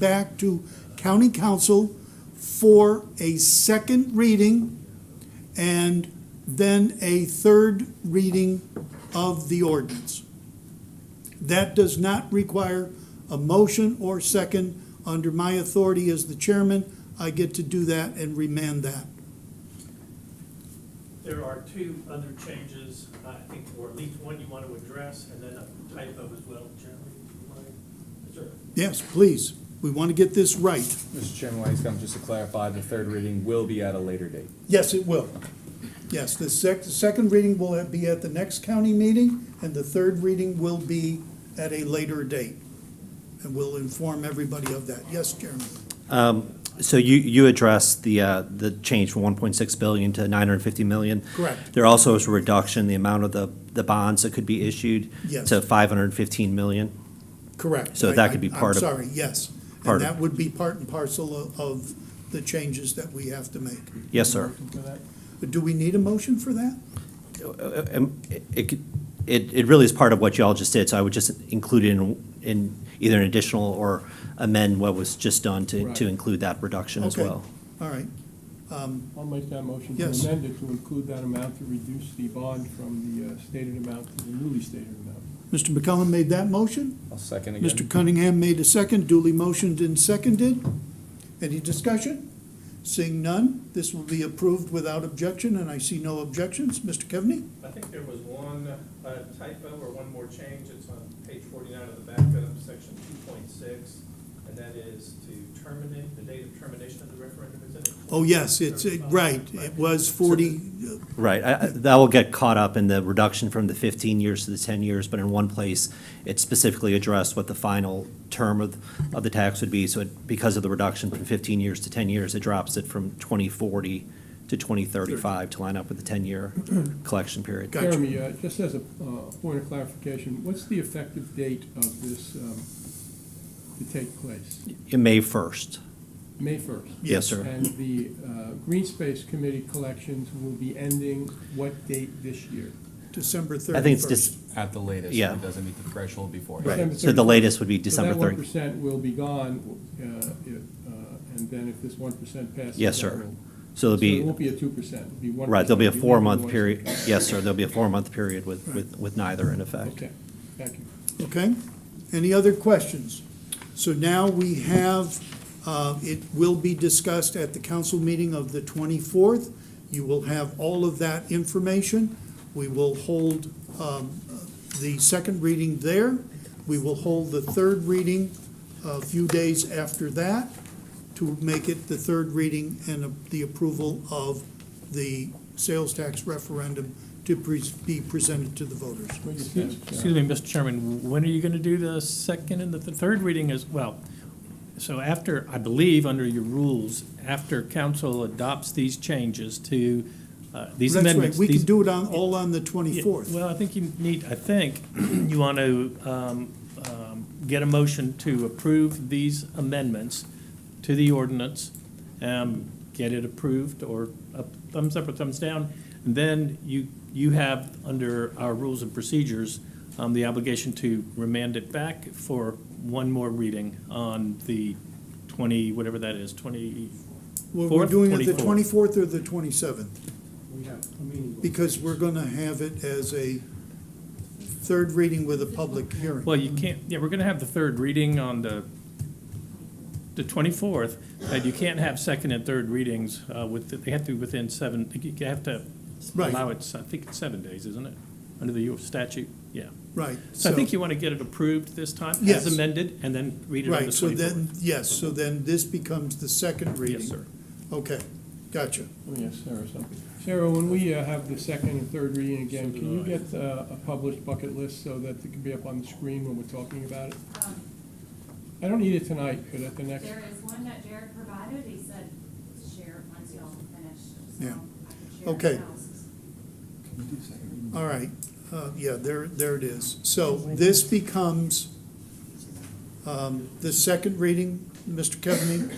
back to county council for a second reading and then a third reading of the ordinance. That does not require a motion or second. Under my authority as the chairman, I get to do that and remand that. There are two other changes, I think, or at least one you want to address, and then a typo as well, Jeremy, if you mind. Is there- Yes, please. We want to get this right. Mr. Chairman, Wangscom, just to clarify, the third reading will be at a later date. Yes, it will. Yes, the sec, the second reading will be at the next county meeting, and the third reading will be at a later date. And we'll inform everybody of that. Yes, Jeremy? Um, So you, you addressed the, uh, the change from 1.6 billion to 950 million. Correct. There also is a reduction in the amount of the, the bonds that could be issued Yes. to 515 million. Correct. So that could be I- I- part of- I'm sorry, yes. And part of- that would be part and parcel of, of the changes that we have to make. Yes, sir. But do we need a motion for that? Uh, um, It, could- it it really is part of what y'all just did, so I would just include it in, in either an additional or amend what was just done to, to Right. include that reduction as Okay. well. All right, I'll make that motion to Yes. amend it to include that amount to reduce the bond from the uh, stated amount to the newly stated amount. Mr. McCollum made that motion? I'll second again. Mr. Cunningham made a second, duly motioned and seconded. Any discussion? Seeing none, this will be approved without objection, and I see no objections. Mr. Kevney? I think there was one uh, typo or one more change, it's on page forty-nine of the backup, section two point six, and that is to terminate, the date of termination of the referendum, is it? Oh, yes, it's, it- right, it was 40, Right, I- I- that will get caught up in the reduction from the 15 years to the 10 years, but in one place, it specifically addressed what the final term of, of the tax would be, so it- because of the reduction from 15 years to 10 years, it drops it from 2040 to 2035 to line up with the 10-year collection period. Gotcha. Jeremy, uh, just as a uh, point of clarification, what's the effective date of this um, to take place? In May 1st, May 1st? Yes, sir. And the uh, Green Space Committee collections will be ending what date this year? December 31st. I think it's just, At the latest, Yeah. if it doesn't meet the threshold before. right, December so the 31st. latest would be So December 30. that 1% will be gone, uh, if, uh, and then if this 1% passes. Yes, that sir. will- So it'll So it be, won't be a 2%, it'll be 1%. right, there'll be a You four-month won't- period, yes, sir, there'll be a four-month period with, with with neither in effect. Okay, thank you. Okay, any other questions? So now we have, uh, it will be discussed at the council meeting of the 24th. You will have all of that information. We will hold um, the second reading there. We will hold the third reading a few days after that to make it the third reading and the approval of the sales tax referendum to pre- be presented to the voters. What you said, Sarah. Excuse me, Mr. Chairman, when are you going to do the second and the th- third reading as well? So after, I believe, under your rules, after council adopts these changes to uh, these That's right. amendments. We these- can do it on, all on the Yeah, 24th. Well, I think you need, I think you want to um, um, get a motion to approve these amendments to the ordinance, um, get it approved or a thumbs up or thumbs down. And then you, you have, under our rules and procedures, um, the obligation to remand it back for one more reading on the 20, whatever that is, 20, We're we're Fourth, doing it the 24th. 24th or the 27th, because we're going to have it as a third reading with a public hearing. Well, you can't, yeah, we're gonna have the third reading on the, the twenty-fourth, but you can't have second and third readings, uh, with, they have to be within seven, you have to Right. allow it, I think it's seven days, isn't it? Under the U statute, yeah. Right. So I think you wanna get it approved this time, Yes. as amended, and then read it on the Right, so then, twenty-fourth. yes, so then this becomes the second reading. Yes, sir. Okay, gotcha. Let me ask Sarah something. Sarah, when we uh, have the second and third reading again, can you get uh, a published bucket list so that it can be up on the screen when we're talking about it? Um, I don't need it tonight, but at the next, There is one that Jared provided, he said, share it once y'all finish, so I Yeah. can share Okay. it else. All right, uh, yeah, there, there it is. So this becomes um, the second reading, Mr. Kevney?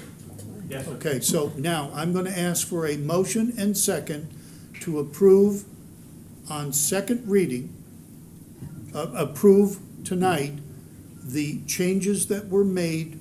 Yes, sir. Okay, so now I'm going to ask for a motion and second to approve on second reading, uh, approve tonight the changes that were made